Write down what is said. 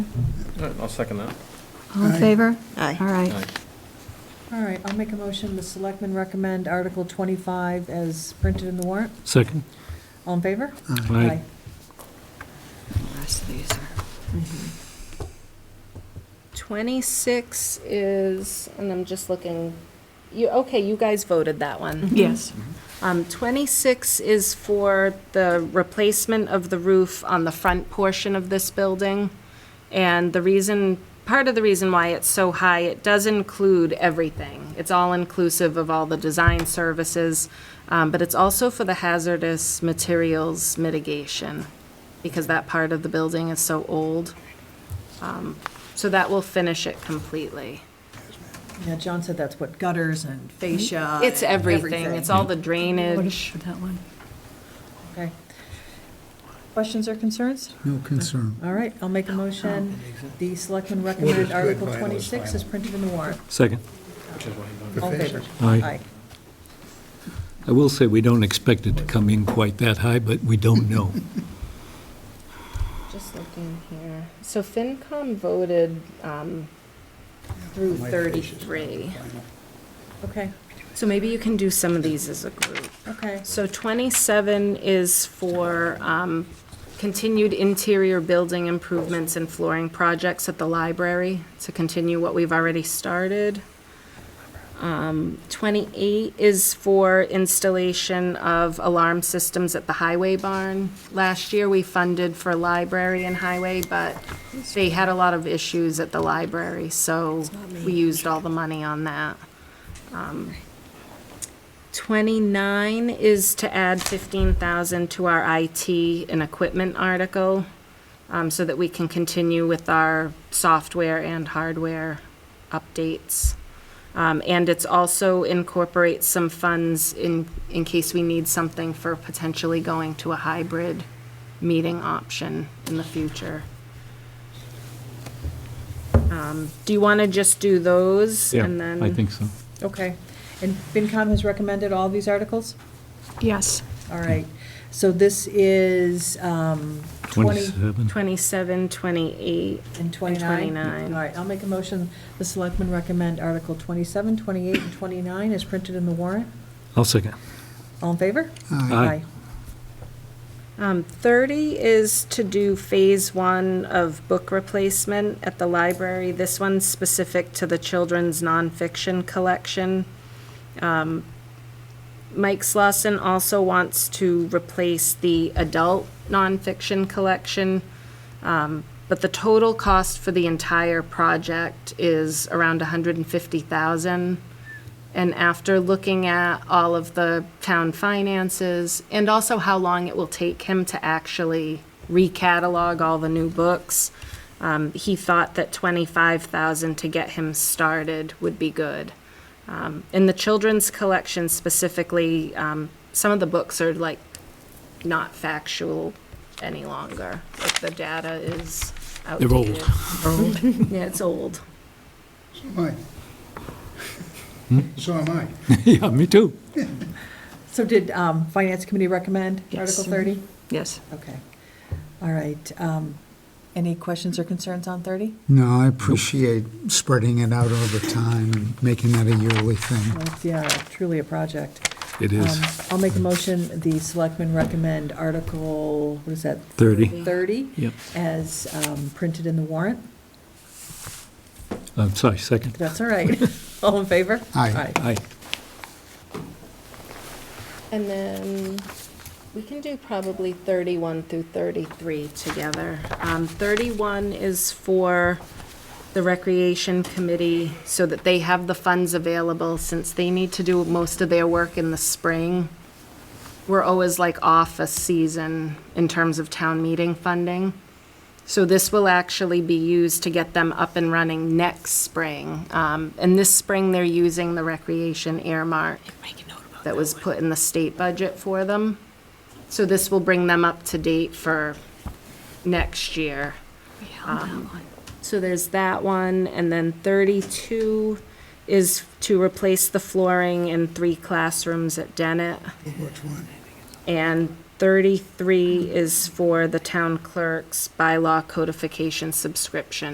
All right, I'll second that. All in Aye. favor? Aye. All All right. right. All right, I'll make a motion, the selectmen recommend Article 25 as printed in the warrant. Second. All in favor? Aye. The rest of these are. 26 is, and I'm just looking, you, okay, you guys voted that one. Yes. Um, 26 is for the replacement of the roof on the front portion of this building. And the reason, part of the reason why it's so high, it does include everything. It's all inclusive of all the design services, um, but it's also for the hazardous materials mitigation because that part of the building is so old. Um, So that will finish it completely. Yeah, John said that's what gutters and fascia. It's and everything. It's all the What drainage. is for that one? Okay. Questions or concerns? No concern. All right, I'll make a motion, the selectmen What is recommend good, Article vital is 26 is vital. printed in the warrant. Second. The All in fascia. favor? Aye. I will say, we don't expect it to come in quite that high, but we don't know. Just looking here. So FinCom voted um, through My fascia's not 33. vital. Okay, So maybe you can do some of these as a group. okay. So 27 is for um, continued interior building improvements and flooring projects at the library to continue what we've already started. Um, 28 is for installation of alarm systems at the highway barn. Last year, we funded for library and highway, but they had a lot of issues at the library, so we used all the money on that. 29 is to add 15,000 to our IT and equipment article, um, so that we can continue with our software and hardware updates. Um, And it's also incorporates some funds in, in case we need something for potentially going to a hybrid meeting option in the future. Um, Do you want to just do those? and then? I think so. Okay. And FinCom has recommended all these articles? Yes. All right. So this is um, 20 27. 27, 28, and 29? And 29. All right, I'll make a motion, the selectmen recommend Article 27, 28, and 29 is printed in the warrant. I'll second. All in favor? Aye. Aye. Um, 30 is to do Phase 1 of book replacement at the library. This one's specific to the children's nonfiction collection. Um, Mike Slosson also wants to replace the adult nonfiction collection, um, but the total cost for the entire project is around 150,000. And after looking at all of the town finances and also how long it will take him to actually recatalog all the new books, um, he thought that twenty-five thousand to get him started would be good. Um, in the children's collection specifically, um, some of the books are like not factual any longer. Like the data is They're old. outdated. Old. Yeah, it's old. So am I. So am I. Yeah, me too. So did um, Finance Committee recommend Yes. Article 30? Yes. Okay. All right. um, Any questions or concerns on 30? No, I appreciate spreading it out over time and making that a yearly thing. Well, it's, Yeah, truly a project. It is. Um, I'll make a motion, the selectmen recommend Article, what is that? 30. 30 Yep. as um, printed in the warrant. I'm sorry, second. That's all right. All in favor? Aye. Aye. And then we can do probably 31 through 33 together. Um, 31 is for the Recreation Committee so that they have the funds available since they need to do most of their work in the spring. We're always like off a season in terms of town meeting funding. So this will actually be used to get them up and running next spring. Um, And this spring, they're using the recreation earmark that was put in the state budget for them. So this will bring them up to date for next year. Um, So there's that one, and then 32 is to replace the flooring in three classrooms at Dennett. Which one? And 33 is for the town clerk's bylaw codification subscription.